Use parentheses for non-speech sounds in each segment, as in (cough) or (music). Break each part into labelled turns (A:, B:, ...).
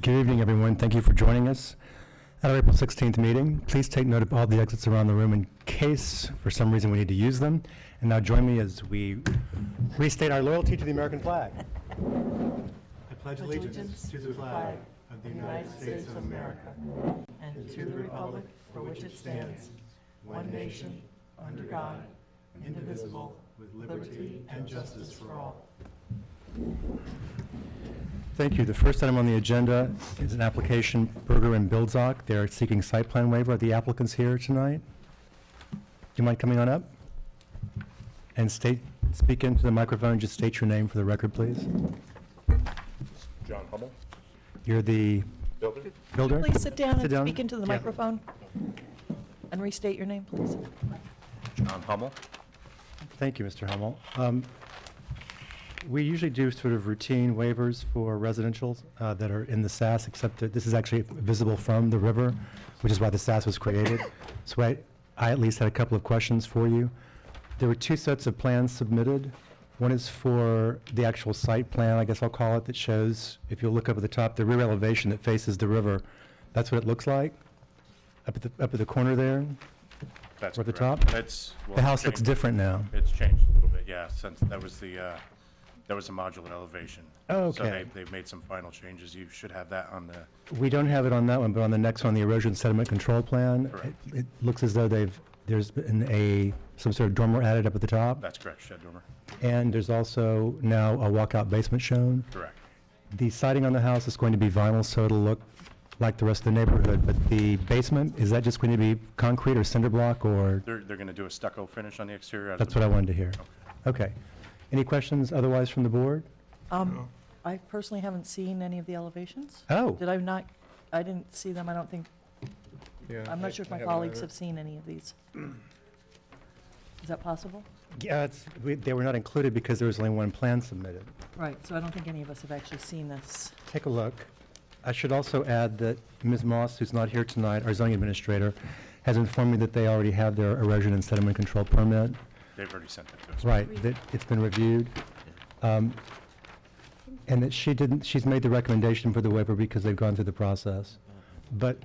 A: Good evening, everyone. Thank you for joining us at our April 16th meeting. Please take note of all the exits around the room in case, for some reason, we need to use them. And now join me as we restate our loyalty to the American flag. I pledge allegiance to the flag of the United States of America
B: and to the republic for which it stands, one nation, under God, indivisible,
A: with
B: liberty and justice for all.
A: Thank you. The first item on the agenda is an application, Berger and Bildzok. They're seeking site plan waiver. Are the applicants here tonight? Do you mind coming on up? And state, speak into the microphone, just state your name for the record, please.
C: John Hummel,
A: You're the
C: builder.
A: builder?
B: Please sit down
A: Sit
B: and
A: down.
B: speak into the
A: Yeah.
B: microphone. And restate your name, please.
C: John Hummel.
A: Thank you, Mr. Hummel. Um, We usually do sort of routine waivers for residential uh, that are in the SAS, except that this is actually visible from the river, which is why the SAS was created. So I, I at least had a couple of questions for you. There were two sets of plans submitted. One is for the actual site plan, I guess I'll call it, that shows, if you look up at the top, the rear elevation that faces the river. That's what it looks like, up at the, up at the corner there.
C: That's
A: Or the
C: correct.
A: top?
C: That's. well,
A: The house
C: changed.
A: looks different now.
C: It's changed a little bit, yeah, since that was the, uh, that was a modular elevation.
A: Oh,
C: So
A: okay.
C: they- they've made some final changes. You should have that on the,
A: We don't have it on that one, but on the next one, the erosion sediment control plan,
C: Correct.
A: it- it looks as though they've, there's been a, some sort of dormer added up at the top,
C: that's correct, shed dormer.
A: and there's also now a walkout basement shown.
C: Correct.
A: The siding on the house is going to be vinyl, so it'll look like the rest of the neighborhood, but the basement, is that just going to be concrete or cinder block, or,
C: They're, they're going to do a stucco finish on the exterior.
A: that's what I wanted to hear. Okay. Any questions otherwise from the board?
B: Um, I personally haven't seen any of the elevations.
A: Oh,
B: Did I not, I didn't see them, I don't think,
D: Yeah,
B: I'm
D: I-
B: not sure if
D: I
B: my
D: haven't
B: colleagues
D: either.
B: have seen any of these. Is that possible?
A: yeah, it's, we- they were not included because there was only one plan submitted.
B: Right, so I don't think any of us have actually seen this.
A: take a look. I should also add that Ms. Moss, who's not here tonight, our zoning administrator, has informed me that they already have their erosion and sediment control permit.
C: They've already sent it to us.
A: Right, that it's been reviewed. Um, And that she didn't, she's made the recommendation for the waiver because they've gone through the process. But,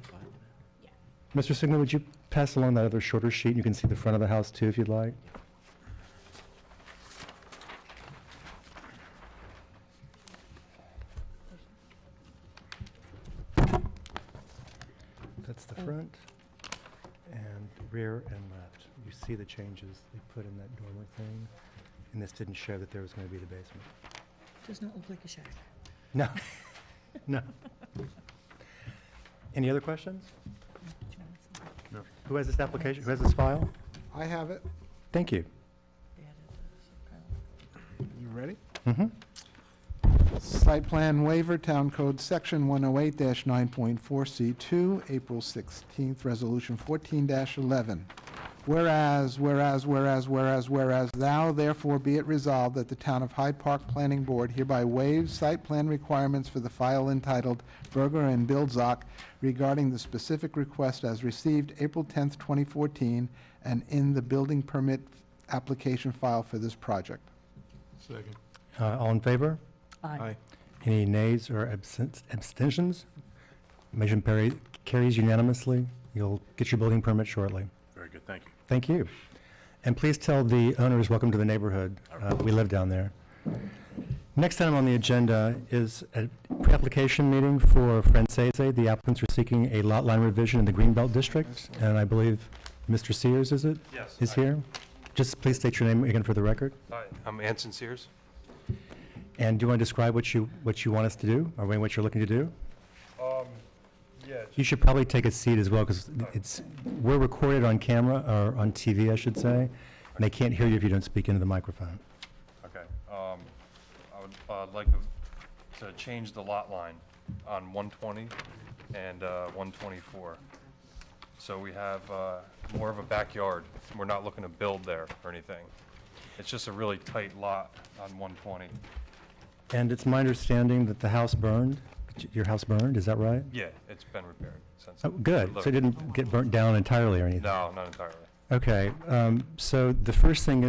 A: Mr. Signa, would you pass along that other shorter sheet? You can see the front of the house too, if you'd like. That's the front and rear and left. You see the changes they put in that dormer thing, and this didn't show that there was going to be the basement.
B: Does not look like a shack.
A: No, (laughs) no. Any other questions? Who has this application, who has this file?
D: I have it.
A: Thank you.
D: You ready?
A: Mm-hmm.
D: Site plan waiver, Town Code Section 108-9.4C2, April 16th, Resolution 14-11. Whereas, whereas, whereas, whereas, whereas, thou therefore be it resolved that the Town of Hyde Park Planning Board hereby waives site plan requirements for the file entitled Berger and Bildzok regarding the specific request as received April 10th, 2014, and in the building permit application file for this project.
E: Second.
A: Uh, All in favor?
B: Aye.
A: Any nays or absten- abstentions? Motion parry- carries unanimously. You'll get your building permit shortly.
C: Very good, thank you.
A: Thank you. And please tell the owners, welcome to the neighborhood. Uh, We live down there. Next item on the agenda is a pre-application meeting for Francese. The applicants are seeking a lot line revision in the Greenbelt District, and I believe Mr. Sears, is it?
F: Yes.
A: Is
F: I-
A: here? Just please state your name again for the record.
F: Hi, I'm Anson Sears.
A: And do you want to describe what you, what you want us to do, or what you're looking to do?
F: Um, yeah,
A: You should probably take a seat as well, because it's, we're recorded on camera, or on TV, I should say, and they can't hear you if you don't speak into the microphone.
F: okay. Um, I would, uh like to- to change the lot line on 120 and, uh, 124. So we have, uh, more of a backyard. We're not looking to build there or anything. It's just a really tight lot on 120.
A: And it's my understanding that the house burned, your house burned, is that right?
F: Yeah, it's been repaired since.
A: Oh, good, so it
F: Look,
A: didn't get burnt down entirely or anything?
F: No, not entirely.
A: Okay, um, so the first thing